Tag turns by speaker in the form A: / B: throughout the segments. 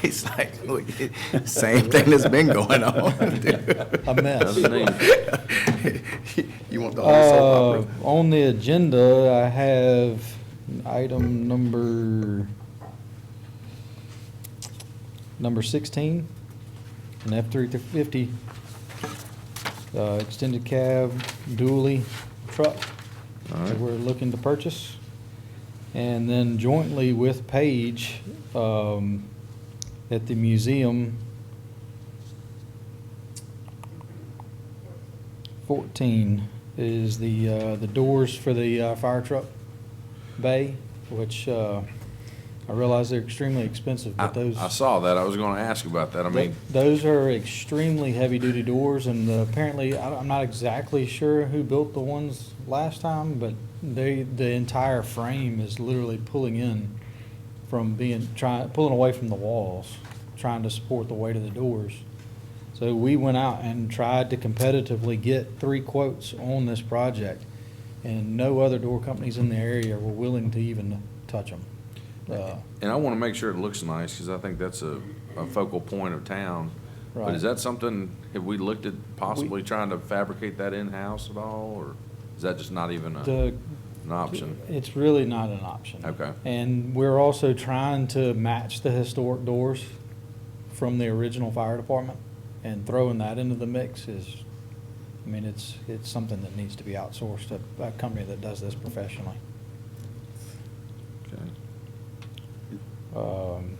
A: It's like, look, it- same thing that's been going on.
B: A mess.
A: You want the whole soap
B: Uh,
A: opera?
B: on the agenda, I have item number, number sixteen, an F three fifty, uh, extended cab dually truck that we're looking to purchase. And then jointly with Page, um, at the museum, fourteen is the, uh, the doors for the, uh, fire truck bay, which, uh, I realize they're extremely expensive,
C: I,
B: but those.
C: I saw that. I was going to ask about that. I mean,
B: Those are extremely heavy-duty doors, and uh, apparently, I- I'm not exactly sure who built the ones last time, but they, the entire frame is literally pulling in from being, trying, pulling away from the walls, trying to support the weight of the doors. So we went out and tried to competitively get three quotes on this project, and no other door companies in the area were willing to even touch them. Uh,
C: and I want to make sure it looks nice because I think that's a, a focal point of town. But
B: Right.
C: is that something, have we looked at possibly trying to fabricate that in-house at all? Or is that just not even a,
B: The
C: an option?
B: It's really not an option.
C: Okay.
B: And we're also trying to match the historic doors from the original fire department. And throwing that into the mix is, I mean, it's, it's something that needs to be outsourced to a company that does this professionally.
C: Okay.
B: Um,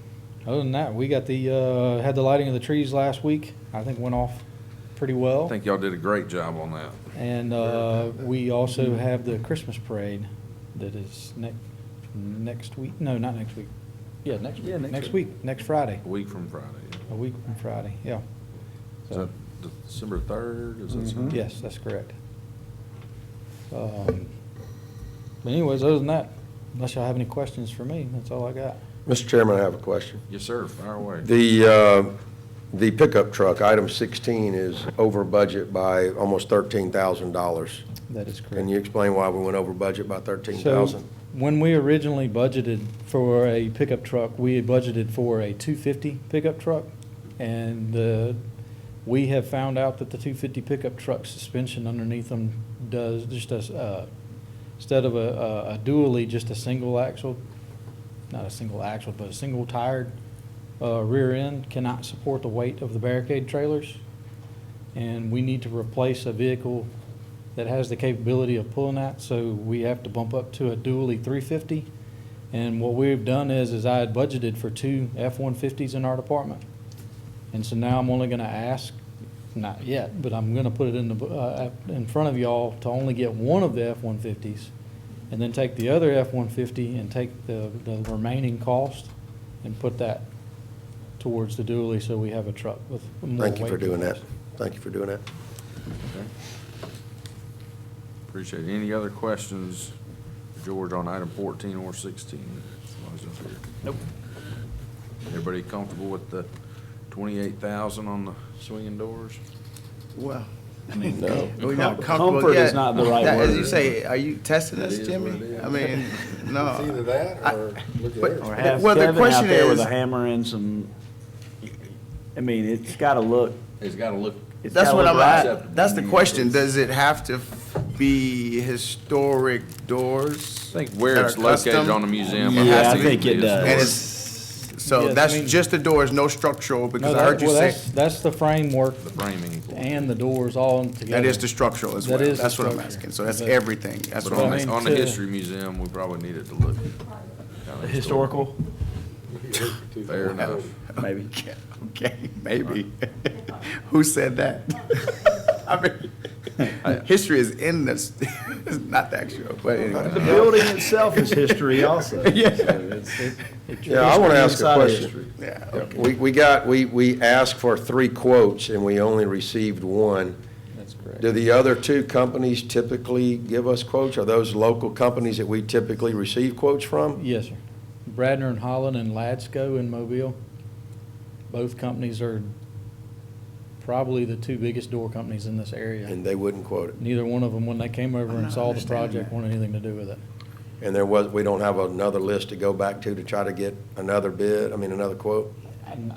B: Other than that, we got the, uh, had the lighting of the trees last week. I think went off pretty well.
C: I think y'all did a great job on that.
B: And uh, we also have the Christmas parade that is next, next week, no, not next week. Yeah, next
A: Yeah,
B: week,
A: next
B: next week, next Friday,
C: A week from Friday. yeah.
B: a week from Friday, yeah.
C: Is that December third? Is that something?
B: Yes, that's correct. Um, But anyways, other than that, unless y'all have any questions for me, that's all I got.
D: Mr. Chairman, I have a question.
C: Yes, sir. Fire away.
D: The, uh, the pickup truck, item 16, is over budget by almost $13,000.
B: That is correct.
D: Can you explain why we went over budget by
B: So
D: 13,000?
B: when we originally budgeted for a pickup truck, we had budgeted for a 250 pickup truck. And uh, we have found out that the 250 pickup truck suspension underneath them does, just as, uh, instead of a- a a dually, just a single axle, not a single axle, but a single tired uh, rear end cannot support the weight of the barricade trailers. And we need to replace a vehicle that has the capability of pulling that, so we have to bump up to a dually three fifty. And what we've done is, is I had budgeted for two F-150s in our department. And so now I'm only gonna ask, not yet, but I'm gonna put it in the, bu- uh, uh, in front of y'all to only get one of the F-150s. And then take the other F-150 and take the, the remaining cost and put that towards the dually, so we have a truck with more weight.
D: Thank you for doing
B: to us.
D: that. Thank you for doing that.
C: Okay. Appreciate it. Any other questions, for George, on item fourteen or sixteen? Nope. Everybody comfortable with the twenty-eight thousand on the swinging doors?
A: Well,
D: No.
A: we're not
E: Comfort-
A: comfortable
E: comfort
A: yet.
E: is not the right
A: That- As
E: word.
A: you say, are you testing us,
C: It is what it
A: Jimmy?
C: is.
A: I mean,
F: It's either
A: no. I-
F: that or look at
A: but-
F: it.
E: Or have
A: Well, the
E: Kevin out
A: question
E: there with
A: is-
E: a hammer and some, I mean, it's gotta look,
C: It's gotta look,
E: it's
A: That's
E: gotta
A: what
E: look right.
A: I'm, at- that's the question. Does it have to be historic doors?
C: I think where
A: that
C: it's
A: are
C: located
A: custom?
C: on the museum.
A: Yeah,
C: has
A: I
C: to
E: think
C: be
E: it
C: a
E: does.
A: And
C: historic.
A: it's, so
B: Yes, I
A: that's
B: mean-
A: just the doors, no structural,
B: No,
A: because I
B: that,
A: heard you
B: well,
A: say
B: that's, that's the framework
C: The framing.
B: and the doors all together.
A: that is the structural as well.
B: That is the
A: That's what I'm
B: structure.
A: asking. So that's
B: But-
A: everything. That's
C: But
A: what I'm
C: on
B: I
A: asking.
B: mean,
C: the, on the
B: to-
C: history museum, we probably needed to look. kinda
E: Historical,
C: Fair enough.
E: maybe.
A: Okay, Okay, maybe. Who said that? I mean, history is in this, it's not the actual, but
E: The
A: anyway.
E: building itself is history also.
A: Yeah.
E: So it's- it- it's
D: Yeah, I want
E: history
D: to ask
E: inside
D: a
E: of
D: question.
E: history.
A: Yeah,
D: Yeah,
A: okay.
D: We, we got, we, we asked for three quotes, and we only received one.
B: That's correct.
D: Do the other two companies typically give us quotes? Are those local companies that we typically receive quotes from?
B: Yes, sir. Bradner and Holland and Ladsco in Mobile. Both companies are probably the two biggest door companies in this area.
D: And they wouldn't quote it?
B: Neither one of them, when they came over
A: I'm
B: and
A: not
B: saw the
A: understanding
B: project,
A: that.
B: wanted anything to do with it.
D: And there was, we don't have another list to go back to to try to get another bid, I mean, another quote?
F: I
B: I'm-